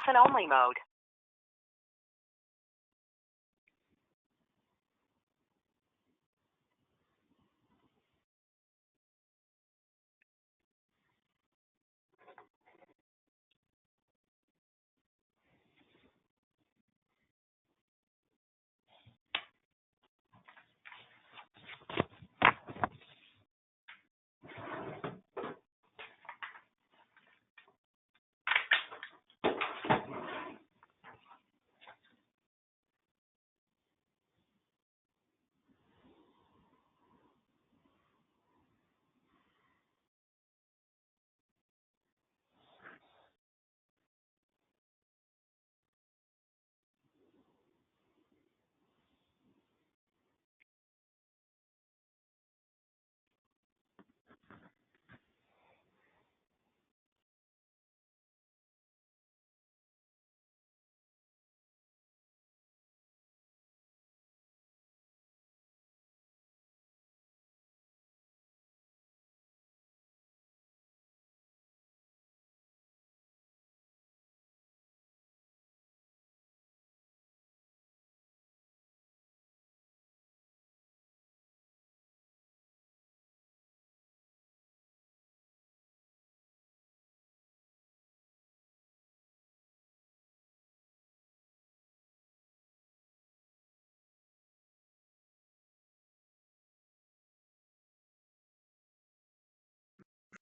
listen-only mode.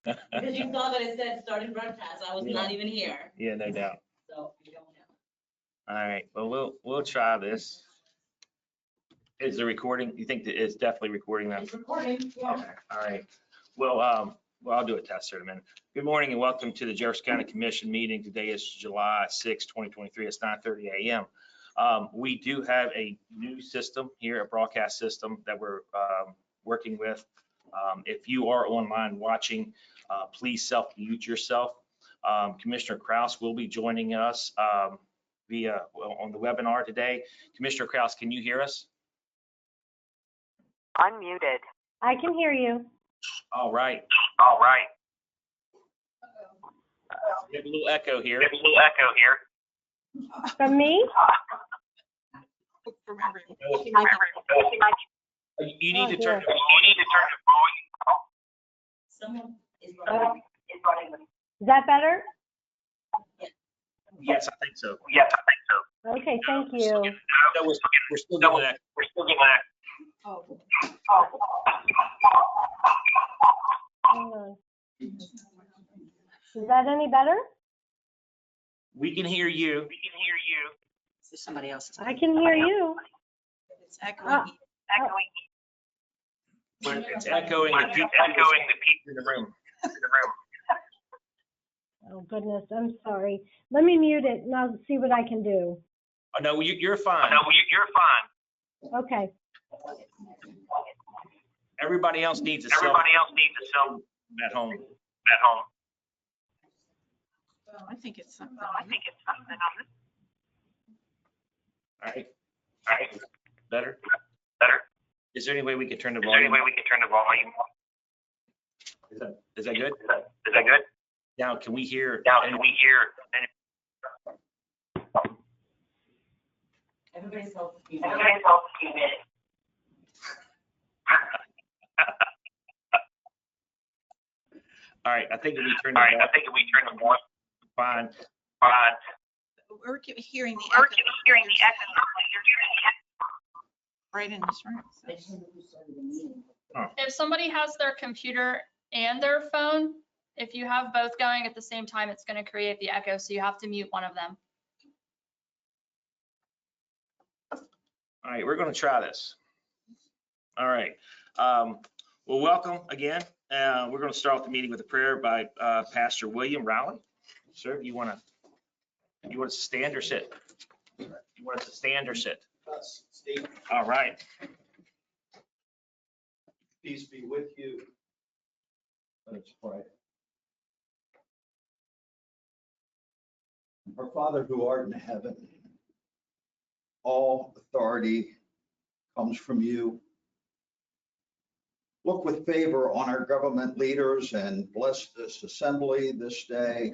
Because you saw that it said starting broadcast, I was Yeah. not even here, Yeah, no doubt. so we don't know. All right, well, we'll, we'll try this. Is the recording, you think that it's definitely recording that? It's recording, yeah. Okay, all right. Well, um, well, I'll do a test here in a minute. Good morning and welcome to the Jefferson County Commission meeting. Today is July 6, 2023. It's 9:30 a.m. Um, We do have a new system here, a broadcast system that we're um, working with. Um, If you are online watching, uh, please self-mute yourself. Um, Commissioner Kraus will be joining us um, via, well, on the webinar today. Commissioner Kraus, can you hear us? Unmuted. I can hear you. All right. All right. We have a little echo here. There's a little echo here. From me? You you need to turn, Oh, dear. You need to turn the volume. Someone is Uh, running. Is that better? yes, I think so. Yes, I think so. Okay, thank you. No, we're still- we're still No. doing that. We're still getting that. Oh. Hang on. Is that any better? We can hear you. We can hear you. Somebody else. I can hear you. It's echoing. Echoing. but It's echoing the But people it's echoing the people in the room. in the Oh room. goodness, I'm sorry. Let me mute it and I'll see what I can do. Oh, no, you, you're Oh, fine. No, you- you're fine. Okay, Everybody else needs a cell Everybody else needs a cell phone at home. at home. I think it's something. I think it's something on this. All right, All right, better. better. Is there any way we could turn the Is there any volume? way we can turn the volume? up? Is that- Is that good? Is that- Is that good? Now, can we hear? Now, any- can we hear? any- Everybody's helping. All All right, I think that we turned right, I it think if we turn the volume fine. on. We're ke- hearing the We're echo hearing the echo. You're hearing the echo. right in this room. so. if somebody has their computer and their phone, if you have both going at the same time, it's going to create the echo, so you have to mute one of them. All right, we're going to try this. All right. Um, Well, welcome again. Uh, We're going to start off the meeting with a prayer by uh, Pastor William Rowley. Sir, you want to, you want us to stand or sit? You want us to stand or sit? us, Steve, All right. peace be with you. Let's pray. Our Father who art in heaven, all authority comes from you. Look with favor on our government leaders and bless this assembly this day.